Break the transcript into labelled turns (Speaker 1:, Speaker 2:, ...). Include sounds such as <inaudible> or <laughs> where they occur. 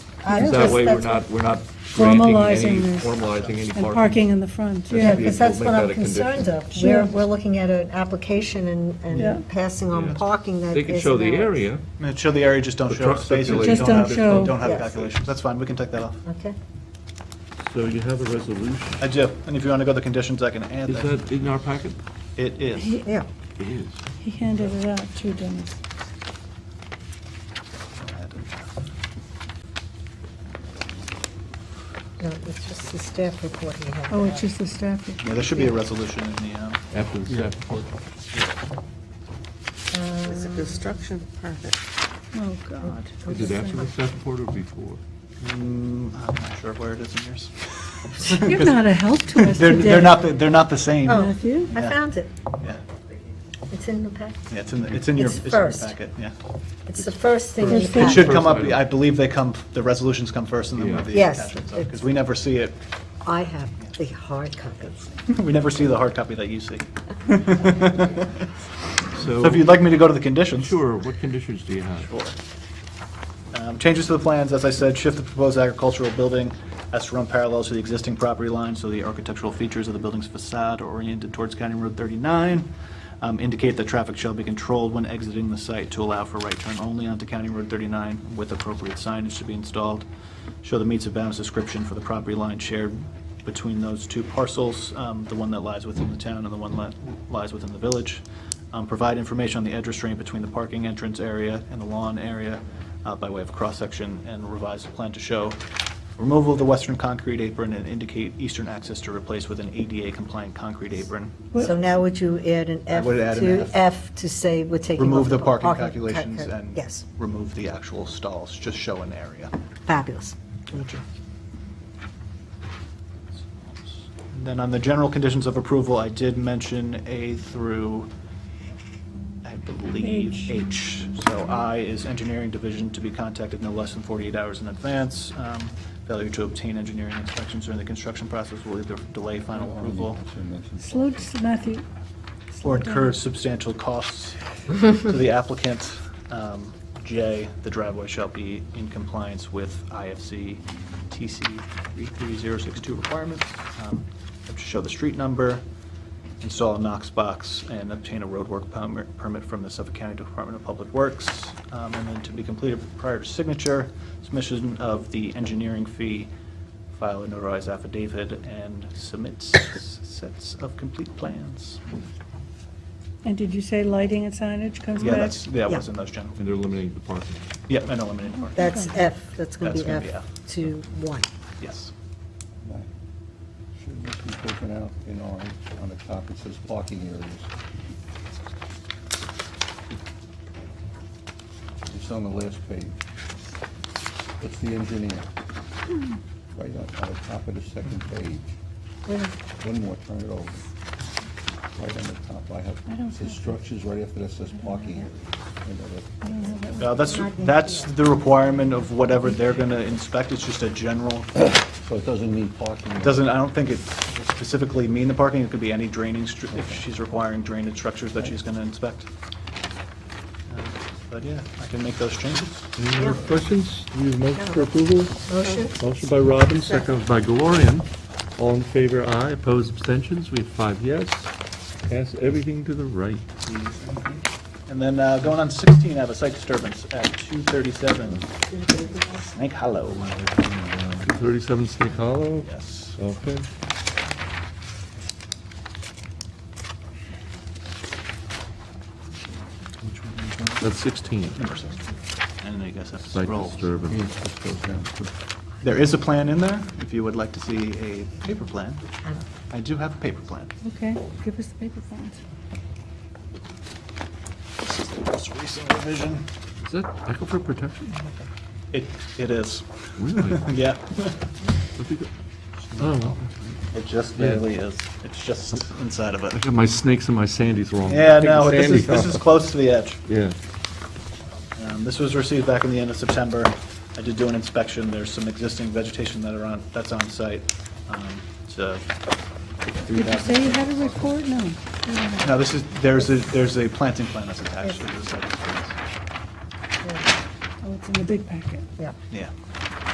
Speaker 1: I
Speaker 2: Is
Speaker 1: don't
Speaker 2: That
Speaker 1: just-
Speaker 2: way, we're
Speaker 1: that's
Speaker 2: not, we're not granting
Speaker 3: Formalizing
Speaker 2: any,
Speaker 3: this.
Speaker 2: formalizing any
Speaker 3: And
Speaker 2: parking.
Speaker 3: parking in the front.
Speaker 1: Yeah,
Speaker 2: should be-
Speaker 1: because that's what
Speaker 2: we'll make
Speaker 1: I'm
Speaker 2: that a condition.
Speaker 1: concerned of. We're,
Speaker 3: Sure.
Speaker 1: we're looking at an application and,
Speaker 3: Yeah.
Speaker 1: and passing on
Speaker 2: Yeah.
Speaker 1: parking that
Speaker 2: They can show the
Speaker 1: isn't ours.
Speaker 2: area,
Speaker 4: I mean, show the area, just don't
Speaker 2: The
Speaker 4: show
Speaker 2: truck
Speaker 4: spaces.
Speaker 2: circulation.
Speaker 3: Just don't
Speaker 4: have-
Speaker 3: show.
Speaker 4: Don't have
Speaker 1: Yes.
Speaker 4: calculations, that's fine, we can take that off.
Speaker 1: Okay.
Speaker 2: so you have a resolution.
Speaker 4: I do, and if you want to go to the conditions, I can add
Speaker 2: Is
Speaker 4: that.
Speaker 2: that in our packet?
Speaker 4: It is.
Speaker 3: He
Speaker 1: Yeah.
Speaker 2: It is.
Speaker 3: he handed it out to Dennis.
Speaker 1: No, it's just the staff report he had.
Speaker 3: Oh, it's just the staff. report.
Speaker 4: Yeah, there should be a resolution in the, um,
Speaker 2: After the staff report.
Speaker 5: It's a construction permit.
Speaker 3: Oh, God.
Speaker 2: Is it after the staff report or before?
Speaker 4: mm, I'm not sure where it is
Speaker 1: <laughs>
Speaker 4: in yours.
Speaker 3: You're not a help to us
Speaker 4: <laughs> They're,
Speaker 3: today.
Speaker 4: they're not, the- they're not the same.
Speaker 1: Oh.
Speaker 3: Matthew?
Speaker 1: I found it.
Speaker 4: Yeah,
Speaker 1: It's in the pack.
Speaker 4: yeah, it's in, the- it's in your,
Speaker 1: It's
Speaker 4: it's in your
Speaker 1: first.
Speaker 4: packet, yeah.
Speaker 1: It's the first thing in the
Speaker 3: It's
Speaker 4: It
Speaker 3: first.
Speaker 1: pack.
Speaker 4: should come up,
Speaker 2: First item.
Speaker 4: I believe they come, the resolutions come first and then
Speaker 2: Yeah.
Speaker 4: the
Speaker 1: Yes,
Speaker 4: attachments,
Speaker 1: it's-
Speaker 4: because we never see it, <laughs>
Speaker 1: I have the hard copy.
Speaker 4: we never see the hard copy that you see.
Speaker 2: So,
Speaker 4: So if you'd like me to go to the conditions?
Speaker 2: sure, what conditions do you have?
Speaker 4: Sure. Um, Changes to the plans, as I said, shift the proposed agricultural building as to run parallel to the existing property line, so the architectural features of the building's facade are oriented towards County Road 39. Um, Indicate that traffic shall be controlled when exiting the site to allow for right turn only onto County Road 39 with appropriate signage to be installed. Show the meets and bounds description for the property line shared between those two parcels, um, the one that lies within the town and the one that lies within the village. Um, Provide information on the edge restraint between the parking entrance area and the lawn area uh, by way of cross-section and revise the plan to show removal of the western concrete apron and indicate eastern access to replace with an ADA-compliant concrete apron.
Speaker 1: So now would you add an
Speaker 4: I
Speaker 1: F
Speaker 4: would add an
Speaker 1: to,
Speaker 4: F.
Speaker 1: F to say we're taking.
Speaker 4: Remove
Speaker 1: off
Speaker 4: the parking
Speaker 1: park-
Speaker 4: calculations
Speaker 1: calc-
Speaker 4: and
Speaker 1: Yes,
Speaker 4: remove the actual stalls, just show an area.
Speaker 1: fabulous.
Speaker 4: And Then on the general conditions of approval, I did mention A through, I believe, H. So I is engineering division to be contacted no less than 48 hours in advance. Um, Failure to obtain engineering inspections during the construction process will either delay final approval
Speaker 3: Slow, Matthew,
Speaker 4: or incur substantial costs to the applicant. Um, J, the driveway shall be in compliance with IFC TC 33062 requirements. Um, Have to show the street number, install a Knox box, and obtain a roadwork perm- permit from the Suffolk County Department of Public Works. Um, And then to be completed prior to signature, submission of the engineering fee, file a notarized affidavit, and submit s- sets of complete plans.
Speaker 3: and did you say lighting and signage comes back?
Speaker 4: Yeah, that's, that
Speaker 1: Yeah.
Speaker 4: was in those general.
Speaker 2: And they're eliminating the parking.
Speaker 4: Yep, and eliminating parking.
Speaker 1: That's F, that's going
Speaker 4: That's
Speaker 1: to be
Speaker 4: gonna be
Speaker 1: F
Speaker 4: F.
Speaker 1: to one.
Speaker 4: Yes.
Speaker 6: Should this be taken out in orange on the top? It says parking areas. It's on the last page. It's the engineer. Right on, on the top of the second page.
Speaker 1: Wait a minute.
Speaker 6: One more, turn it over. Right on the top, I
Speaker 3: I don't
Speaker 6: have, the
Speaker 3: have-
Speaker 6: structures right after that says parking area. And
Speaker 3: I
Speaker 6: other-
Speaker 3: don't know that
Speaker 4: Uh, That's, that's the requirement of whatever they're going to inspect. It's just a general,
Speaker 6: So it doesn't mean parking.
Speaker 4: it doesn't, I don't think it will specifically mean the parking. It could be any draining, stru- if she's requiring drainage structures that she's going to inspect. Uh, But yeah, I can make those changes.
Speaker 2: Any more questions? Do you have a motion for approval?
Speaker 1: Motion?
Speaker 2: Motion by Robbins, second by Glorian. All in favor, aye. Opposed, abstentions? We have five yes. Pass everything to the right.
Speaker 4: And then uh, going on 16, I have a site disturbance at 237 Snake Hollow.
Speaker 2: 237 Snake Hollow.
Speaker 4: Yes.
Speaker 2: Okay. That's 16.
Speaker 4: Number 16. And I guess that's
Speaker 2: Site
Speaker 4: roll.
Speaker 2: disturbance.
Speaker 4: There is a plan in there, if you would like to see a paper plan. I do have a paper plan.
Speaker 3: Okay, give us the paper plans.
Speaker 4: This is the most recent revision.
Speaker 2: Is that aquifer protection?
Speaker 4: It, it is,
Speaker 2: Really?
Speaker 4: yeah.
Speaker 2: Oh,
Speaker 4: It just
Speaker 2: barely
Speaker 4: is. It's just inside of
Speaker 2: I
Speaker 4: it.
Speaker 2: got my snakes and my sandies wrong.
Speaker 4: Yeah, no, this is, this is close to the edge.
Speaker 2: Yeah.
Speaker 4: Um, This was received back in the end of September. I did do an inspection. There's some existing vegetation that are on, that's on site. Um, So,
Speaker 3: Did you say you had a report? No.
Speaker 4: no, this is, there's a, there's a planting plan that's attached to this.
Speaker 3: Oh, it's in the big packet.
Speaker 1: Yeah.
Speaker 4: Yeah.